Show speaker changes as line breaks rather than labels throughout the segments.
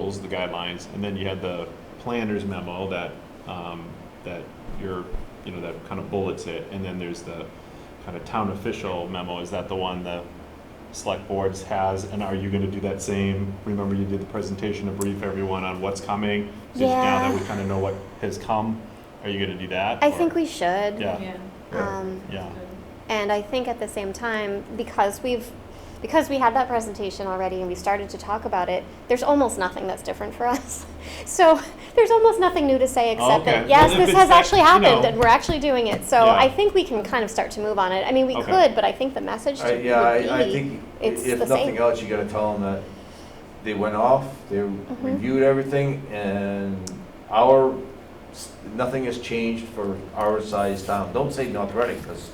rules, the guidelines, and then you had the planner's memo that, um, that your, you know, that kind of bullets it, and then there's the kind of town official memo, is that the one the select boards has, and are you gonna do that same? Remember you did the presentation to brief everyone on what's coming? So Now that
Yeah.
we kind of know what has come, are you gonna do that?
I
or-
think we should.
Yeah.
Um,
Yeah,
And I think at the same time, because we've because we had that presentation already and we started to talk about it, there's almost nothing that's different for us. So there's almost nothing new to say
Oh,
except that
okay.
yes,
Well, if
this
it's
has
that-
actually
you
happened
know.
and we're actually doing it. So
Yeah.
I think we can kind of start to move on it. I mean, we
Okay.
could, but I think the message
I,
to-
yeah,
would be
I, I think i-
it's
if
the
nothing
same.
else, you gotta tell them that they went off, they
Mm-hmm.
reviewed everything, and our, s- nothing has changed for our size town. Don't say North Reading, because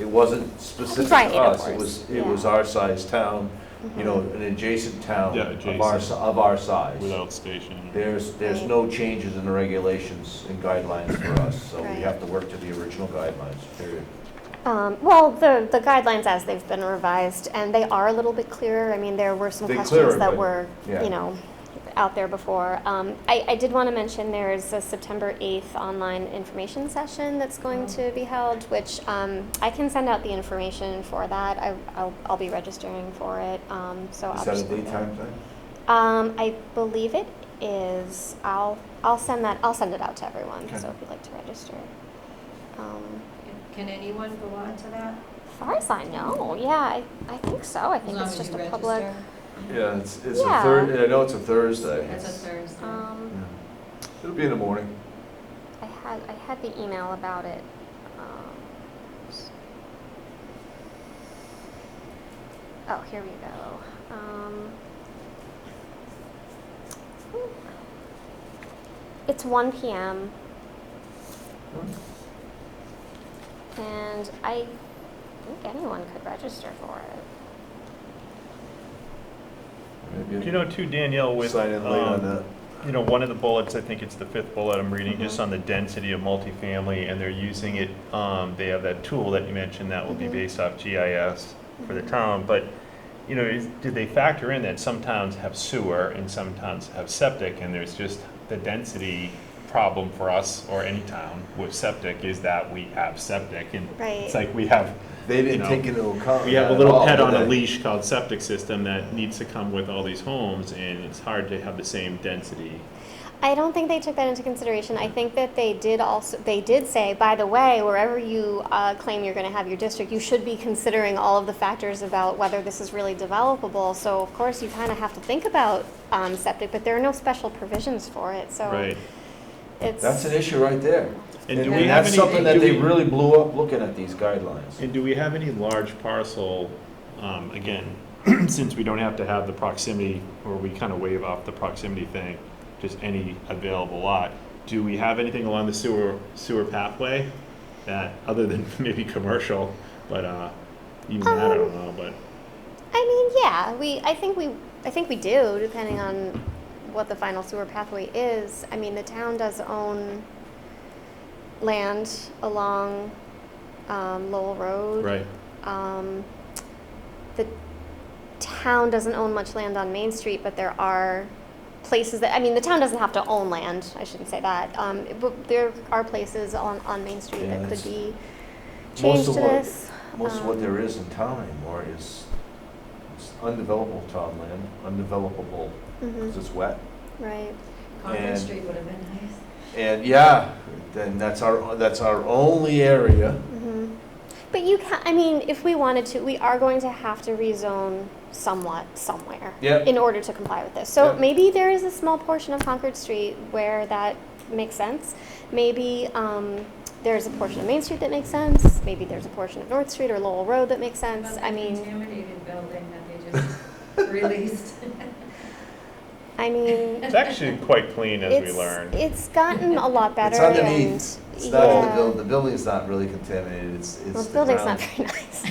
it wasn't specific
Right, of
to us. It
course,
was,
yeah. Mm-hmm.
it was our size town, you know, an adjacent town
Yeah,
of our,
adjacent.
si- of our size.
without station.
There's, there's
Right.
no changes in the regulations and guidelines for us, so
Right.
we have to work to the original guidelines, period.
Um, well, the, the guidelines as they've been revised, and they are a little bit clearer. I mean, there were some
They're
questions
clearer,
that
but-
were,
yeah.
you know, out there before. Um, I, I did want to mention there is a September 8th online information session that's going
Mm.
to be held, which um, I can send out the information for that. I, I'll, I'll be registering for it. Um, so I'll
Is that a
just-
daytime thing?
Um, I believe it is. I'll, I'll send that. I'll send it out to everyone.
Okay.
So if you'd like to register. Um,
Can anyone go on to that?
As far as I know, yeah, I, I think so. I think it's just a public.
Yeah, it's, it's
Yeah.
a Thursday. I know it's a Thursday.
That's a Thursday.
Um,
Yeah. It'll be in the morning.
I had I had the email about it. Um, s- oh, here we go. Um, it's 1 p.m. and I think anyone could register for it.
Maybe
Do you know too, Danielle, with,
sign in late on
um,
that.
you know, one of the bullets, I think it's the fifth bullet I'm reading, just on the density of multifamily, and they're using it, um, they have that tool that you mentioned that will be
Mhm.
based off GIS for the town, but, you know, is, did they factor in that some towns have sewer and some towns have septic, and there's just the density problem for us, or any town with septic, is that we have septic, and
Right.
it's like we have,
They didn't
you know,
take into account.
We have a
that at
little
all,
pet
did
on a
they?
leash called septic system that needs to come with all these homes, and it's hard to have the same density.
I don't think they took that into consideration. I think that they did also, they did say, by the way, wherever you uh, claim you're going to have your district, you should be considering all of the factors about whether this is really developable. So of course, you kind of have to think about um, septic, but there are no special provisions for it, so.
Right.
It's,
That's an issue right there.
And do
And
we
and
have
that's
any-
something
do
that they
we-
really blew up looking at these guidelines.
And do we have any large parcel, um, again, since we don't have to have the proximity, or we kind of waive off the proximity thing, just any available lot, do we have anything along the sewer, sewer pathway that, other than maybe commercial, but, uh, even that, I don't know, but,
I mean, yeah, we, I think we, I think we do, depending on what the final sewer pathway is. I mean, the town does own land along um, Lowell Road.
right,
Um, the town doesn't own much land on Main Street, but there are places that, I mean, the town doesn't have to own land, I shouldn't say that. Um, it- but there are places on, on Main Street
Yeah,
that could
that's-
be
Most
changed to
of what,
this.
most of
um,
what there is in town anymore is it's undevelopable townland, undevelopable,
Mhm,
because it's wet.
right.
And-
Conference Street would have been nice.
And yeah, then that's our, that's our only area.
Mhm. But you can, I mean, if we wanted to, we are going to have to rezone somewhat somewhere
Yep.
in order to comply with this. So
Yep.
maybe there is a small portion of Concord Street where that makes sense. Maybe um, there's a portion of Main Street that makes sense. Maybe there's a portion of North Street or Lowell Road that makes
How
sense.
About
I
that
mean,
contaminated building that they just released.
I mean,
it's actually quite clean as we
it's
learn.
it's gotten a lot better.
It's underneath.
and-
It's not, in the
yeah.
buil- the building's not really contaminated, it's, it's.
Well, the building's not
ground.
very nice.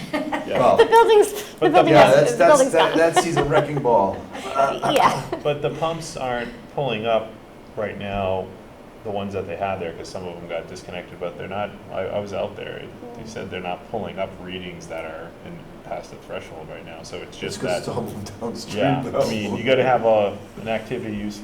yeah.
Well,
the building's the
But the-
building
Yeah,
has-
that's,
the
that's,
building's
that,
gone.
that sees a wrecking ball.
yeah.
But the pumps aren't pulling up right now, the ones that they had there, because some of them got disconnected, but they're not, I, I was out there. They said they're not pulling up readings that are in, past the threshold right now, so it's just
Just because it's
that.
all downstream.
Yeah, I
though.
mean, you gotta have a, an activity use